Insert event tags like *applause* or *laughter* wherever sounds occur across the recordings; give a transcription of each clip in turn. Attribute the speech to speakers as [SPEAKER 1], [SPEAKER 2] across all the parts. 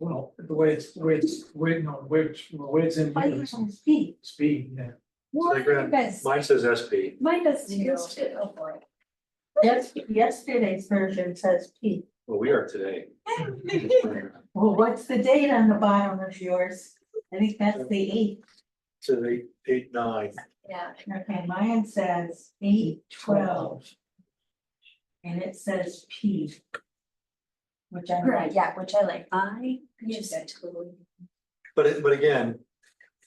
[SPEAKER 1] Well, the way it's, the way it's, wait, no, which, way it's in
[SPEAKER 2] I
[SPEAKER 1] here
[SPEAKER 2] use
[SPEAKER 1] is
[SPEAKER 2] on speed.
[SPEAKER 1] speed, yeah.
[SPEAKER 2] What
[SPEAKER 3] Telegram.
[SPEAKER 2] is,
[SPEAKER 3] Mine says SP.
[SPEAKER 2] mine does
[SPEAKER 4] Zero.
[SPEAKER 2] use too. Yes, yesterday's version says P.
[SPEAKER 3] Well, we are today.
[SPEAKER 2] Well, what's the date on the bottom of yours? I think that's the eighth.
[SPEAKER 3] To eight, eight, nine.
[SPEAKER 4] Yeah.
[SPEAKER 2] Okay, mine says eight twelve and it says P. Which I
[SPEAKER 4] Right,
[SPEAKER 2] like.
[SPEAKER 4] yeah, which I like. I just totally.
[SPEAKER 3] But it, but again,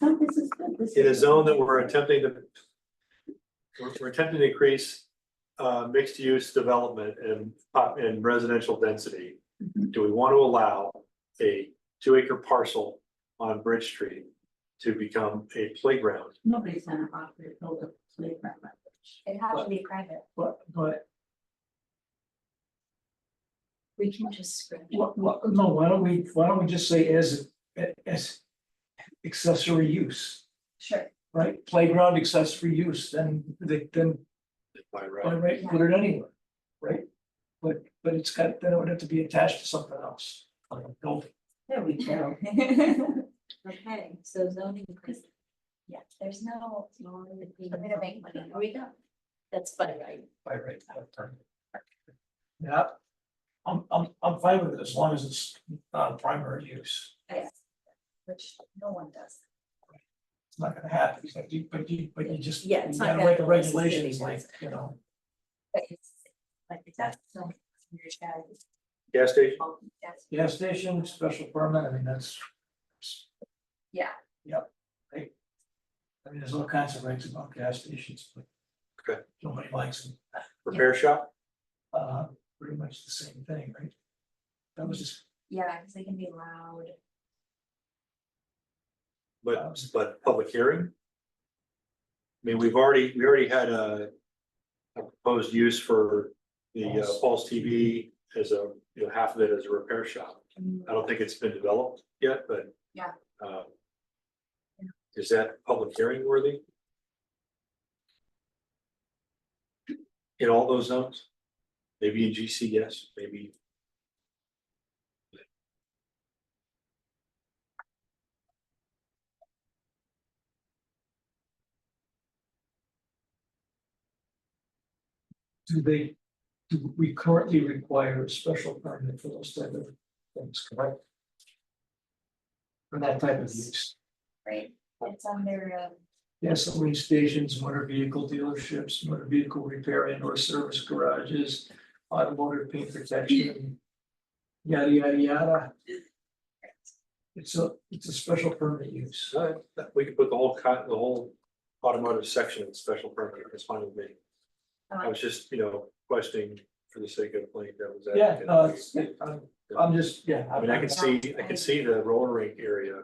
[SPEAKER 2] Oh, this is good, this
[SPEAKER 3] in a zone that we're attempting to. We're, we're attempting to increase, uh, mixed use development and, pop- and residential density.
[SPEAKER 2] Mhm.
[SPEAKER 3] Do we want to allow a two acre parcel on Bridge Street to become a playground?
[SPEAKER 2] Nobody's gonna offer to build a playground. on it.
[SPEAKER 4] It has to be private.
[SPEAKER 1] But, but,
[SPEAKER 4] We can just script. it.
[SPEAKER 1] what, what, no, why don't we, why don't we just say as, as accessory use,
[SPEAKER 4] *laughs* Sure.
[SPEAKER 1] right? Playground accessory use, then they, then,
[SPEAKER 3] By
[SPEAKER 1] by
[SPEAKER 3] right,
[SPEAKER 1] right, put it anywhere, right? But, but it's got, then it would have to be attached to something else, like a building.
[SPEAKER 2] There we go.
[SPEAKER 4] Okay, so zoning. cause- Yeah, there's no. We're gonna make money. Here we go. That's funny, right?
[SPEAKER 1] by right. Yeah. I'm, I'm, I'm fine with it as long as it's not a primary use.
[SPEAKER 4] Yes. Which no one does.
[SPEAKER 1] It's not gonna happen, but you, but you, but you just.
[SPEAKER 4] Yeah, it's
[SPEAKER 1] you
[SPEAKER 4] not
[SPEAKER 1] gotta
[SPEAKER 4] gonna
[SPEAKER 1] Make the
[SPEAKER 4] happen. This is
[SPEAKER 1] regulations
[SPEAKER 4] gonna be
[SPEAKER 1] like, you know,
[SPEAKER 4] But it's like that's so. Your strategy.
[SPEAKER 3] gas station,
[SPEAKER 4] That's-
[SPEAKER 1] gas station, special permit, I mean, that's.
[SPEAKER 4] Yeah.
[SPEAKER 1] Yep, right. I mean, there's all kinds of regs about gas stations, but.
[SPEAKER 3] Okay.
[SPEAKER 1] Nobody likes them,
[SPEAKER 3] repair shop,
[SPEAKER 1] uh, pretty much the same thing, right? That was just,
[SPEAKER 4] Yeah, because they can be loud.
[SPEAKER 3] but, but public hearing? I mean, we've already, we already had a. A proposed use for the uh, Falls TV as a, you know, half of it as a repair shop. I don't think it's been developed yet, but.
[SPEAKER 4] Yeah.
[SPEAKER 3] uh, Is that public hearing worthy? In all those zones? Maybe in GC, yes, maybe.
[SPEAKER 1] do they, do we currently require a special permit for those type of things, correct? For that type of use,
[SPEAKER 4] Right, it's under, um,
[SPEAKER 1] gasoline stations, motor vehicle dealerships, motor vehicle repair and or service garages, automotive paint protection. Yada, yada, yada. It's a, it's a special permit use.
[SPEAKER 3] Uh, we could put the whole, co- the whole automotive section in special permit, it's fine with me. I
[SPEAKER 4] um,
[SPEAKER 3] was just, you know, questioning for the sake of playing devil's
[SPEAKER 1] Yeah,
[SPEAKER 3] advocate.
[SPEAKER 1] no, it's, I'm, I'm just, yeah.
[SPEAKER 3] I mean, I can see, I can see the roller rink area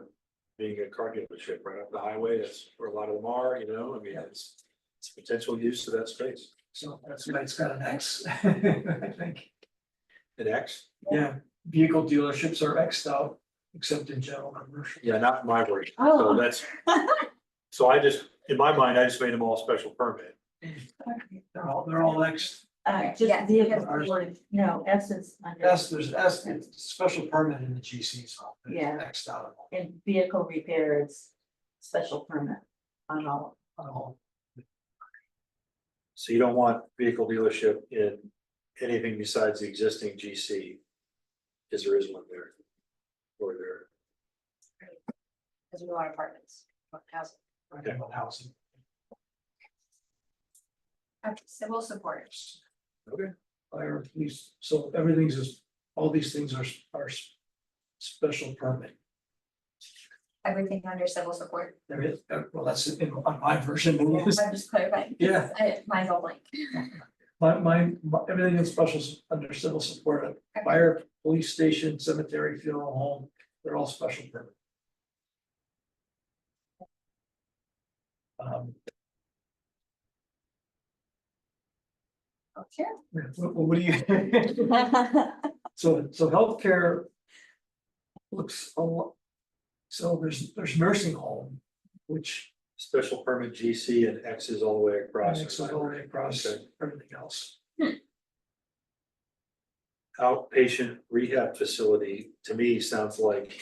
[SPEAKER 3] being a car dealership right up the highway, that's where a lot of them are, you know, I mean, it's. It's potential use to that space,
[SPEAKER 1] So that's why it's got an *laughs* X, I think.
[SPEAKER 3] an X,
[SPEAKER 1] Yeah, vehicle dealerships are Xed out, except in general commercial.
[SPEAKER 3] yeah, not my word, so
[SPEAKER 2] Oh.
[SPEAKER 3] that's. So I just, in my mind, I just made them all special permit,
[SPEAKER 1] They're all, they're all Xed.
[SPEAKER 2] Uh,
[SPEAKER 4] Yeah.
[SPEAKER 2] just vehicle, board, no, S is under,
[SPEAKER 1] S, there's S, it's special permit in the GC's office.
[SPEAKER 2] Yeah.
[SPEAKER 1] Xed out
[SPEAKER 2] and vehicle repair is special permit on all of them.
[SPEAKER 1] of all.
[SPEAKER 3] so you don't want vehicle dealership in anything besides the existing GC. Because there is one there. Or there.
[SPEAKER 4] because we want apartments, or housing.
[SPEAKER 1] Talking about housing.
[SPEAKER 4] Okay, civil support.
[SPEAKER 1] Fire, police, so everything's is, all these things are, are s- special permit.
[SPEAKER 4] Everything under civil support.
[SPEAKER 1] *laughs* There is, uh, well, that's in, on my version,
[SPEAKER 4] Yeah,
[SPEAKER 1] it is.
[SPEAKER 4] I'm just clarifying.
[SPEAKER 1] Yeah.
[SPEAKER 4] I, mine's all *laughs* blank.
[SPEAKER 1] my, my, my- everything in special, s- under civil support, uh, fire, police station, cemetery, funeral home, they're all special permit. Um,
[SPEAKER 4] Okay.
[SPEAKER 1] What, what do you, *laughs* so, so healthcare. Looks a lot. So there's, there's nursing home, which
[SPEAKER 3] Special permit GC and X is all the way across.
[SPEAKER 1] connects all the way across
[SPEAKER 3] Okay.
[SPEAKER 1] everything else.
[SPEAKER 3] Outpatient rehab facility, to me, sounds like